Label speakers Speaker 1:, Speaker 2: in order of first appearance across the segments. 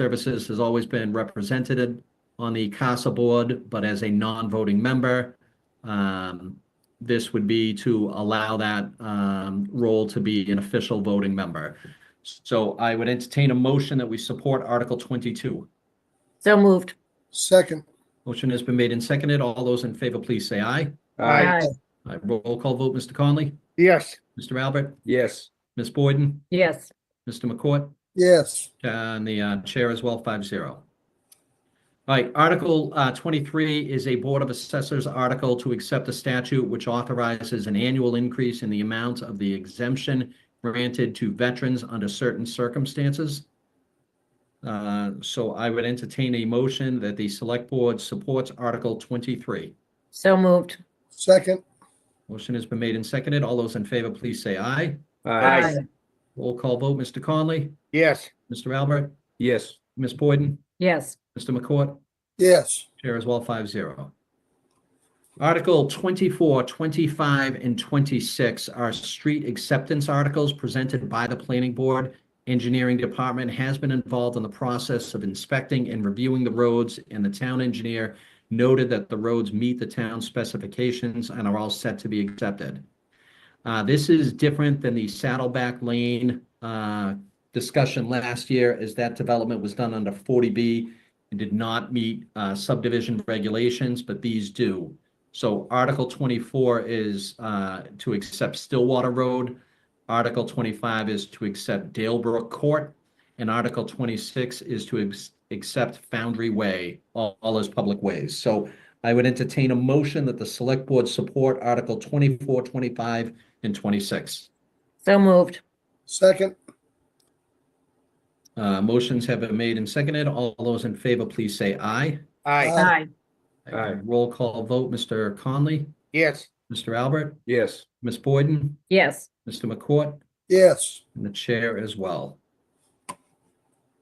Speaker 1: Services has always been represented on the CASA board, but as a non-voting member. Um, This would be to allow that um, role to be an official voting member. So I would entertain a motion that we support Article 22.
Speaker 2: So moved.
Speaker 3: Second,
Speaker 1: Motion has been made and seconded. All those in favor, please say aye.
Speaker 2: Aye.
Speaker 1: Aye. Roll call vote, Mr. Conley,
Speaker 4: Yes.
Speaker 1: Mr. Albert,
Speaker 4: Yes.
Speaker 1: Ms. Boyden,
Speaker 2: Yes.
Speaker 1: Mr. McCourt.
Speaker 3: yes,
Speaker 1: And the uh, chair as well, five zero. All right, Article uh, 23 is a Board of Assessors article to accept a statute which authorizes an annual increase in the amount of the exemption granted to veterans under certain circumstances. Uh, So I would entertain a motion that the Select Board supports Article 23.
Speaker 2: So moved.
Speaker 3: second,
Speaker 1: Motion has been made and seconded. All those in favor, please say aye.
Speaker 4: Aye.
Speaker 1: Roll call vote, Mr. Conley,
Speaker 4: Yes.
Speaker 1: Mr. Albert,
Speaker 4: Yes.
Speaker 1: Ms. Boyden,
Speaker 2: Yes.
Speaker 1: Mr. McCourt.
Speaker 3: yes,
Speaker 1: Chair as well, five zero. Article 24, 25, and 26 are street acceptance articles presented by the planning board. Engineering department has been involved in the process of inspecting and reviewing the roads, and the town engineer noted that the roads meet the town specifications and are all set to be accepted. Uh, This is different than the Saddleback Lane uh, discussion last year, as that development was done under 40B and did not meet uh, subdivision regulations, but these do. So Article 24 is uh, to accept Stillwater Road. Article 25 is to accept Dalebrook Court. And Article 26 is to ex- accept Foundry Way, all all as public ways. So I would entertain a motion that the Select Board support Article 24, 25, and 26.
Speaker 2: So moved.
Speaker 3: second,
Speaker 1: Uh, Motions have been made and seconded. All those in favor, please say aye.
Speaker 4: Aye.
Speaker 3: Aye.
Speaker 4: Aye.
Speaker 1: Roll call vote, Mr. Conley,
Speaker 4: Yes.
Speaker 1: Mr. Albert,
Speaker 4: Yes.
Speaker 1: Ms. Boyden,
Speaker 2: Yes.
Speaker 1: Mr. McCourt,
Speaker 3: yes,
Speaker 1: and the chair as well.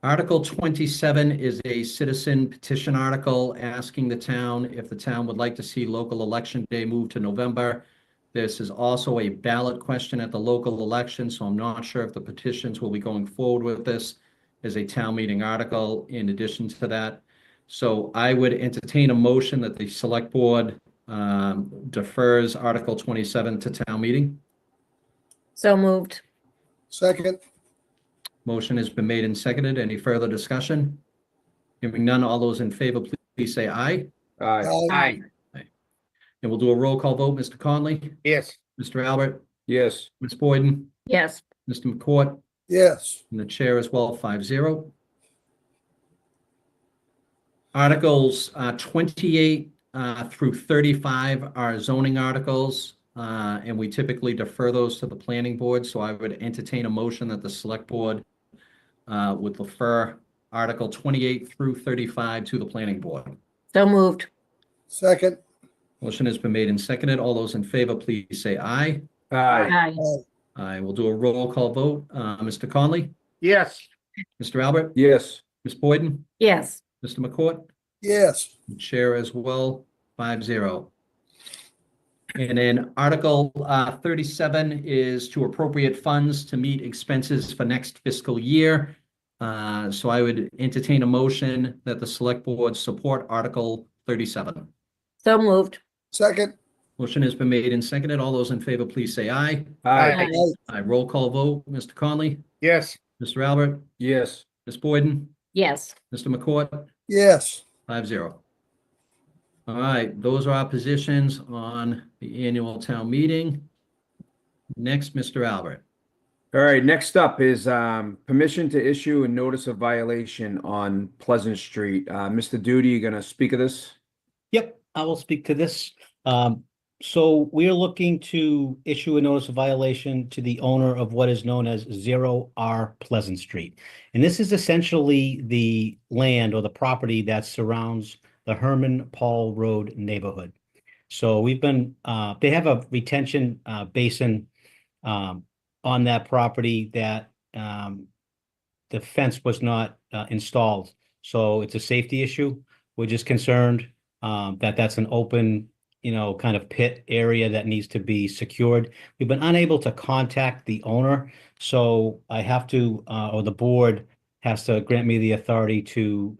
Speaker 1: Article 27 is a citizen petition article asking the town if the town would like to see local election day moved to November. This is also a ballot question at the local election, so I'm not sure if the petitions will be going forward with this as a town meeting article in addition to that. So I would entertain a motion that the select board um, defers Article 27 to town meeting.
Speaker 2: So moved.
Speaker 3: second,
Speaker 1: Motion has been made and seconded. Any further discussion? Hearing none, all those in favor, please- please say aye.
Speaker 4: Aye.
Speaker 3: aye,
Speaker 1: And we'll do a roll call vote. Mr. Conley,
Speaker 4: Yes.
Speaker 1: Mr. Albert,
Speaker 4: Yes.
Speaker 1: Ms. Boyden,
Speaker 2: Yes.
Speaker 1: Mr. McCourt,
Speaker 3: yes,
Speaker 1: and the chair as well, five zero. Articles uh, 28 uh, through 35 are zoning articles, uh, and we typically defer those to the planning board. So I would entertain a motion that the select board uh, would defer Article 28 through 35 to the planning board.
Speaker 2: So moved.
Speaker 3: second,
Speaker 1: Motion has been made and seconded. All those in favor, please say aye.
Speaker 4: Aye.
Speaker 2: Aye.
Speaker 3: aye,
Speaker 1: I will do a roll call vote. Uh, Mr. Conley,
Speaker 4: Yes.
Speaker 1: Mr. Albert,
Speaker 4: Yes.
Speaker 1: Ms. Boyden,
Speaker 2: Yes.
Speaker 1: Mr. McCourt.
Speaker 3: yes,
Speaker 1: Chair as well, five zero. And then Article uh, 37 is to appropriate funds to meet expenses for next fiscal year. Uh, So I would entertain a motion that the Select Board support Article 37.
Speaker 2: So moved.
Speaker 3: second,
Speaker 1: Motion has been made and seconded. All those in favor, please say aye.
Speaker 4: Aye.
Speaker 2: Aye.
Speaker 3: aye,
Speaker 1: I roll call vote, Mr. Conley,
Speaker 4: Yes.
Speaker 1: Mr. Albert,
Speaker 4: Yes.
Speaker 1: Ms. Boyden,
Speaker 2: Yes.
Speaker 1: Mr. McCourt.
Speaker 3: yes,
Speaker 1: Five zero. All right, those are our positions on the annual town meeting. Next, Mr. Albert.
Speaker 4: All right, next up is um, permission to issue a notice of violation on Pleasant Street. Uh, Mr. Duty, you gonna speak of this?
Speaker 5: Yep, I will speak to this. Um, so we are looking to issue a notice of violation to the owner of what is known as Zero R Pleasant Street. And this is essentially the land or the property that surrounds the Herman Paul Road neighborhood. So we've been, uh, they have a retention, uh, basin, um, on that property that, um, the fence was not, uh, installed. So it's a safety issue. We're just concerned um, that that's an open, you know, kind of pit area that needs to be secured. We've been unable to contact the owner, so I have to, uh, or the board has to grant me the authority to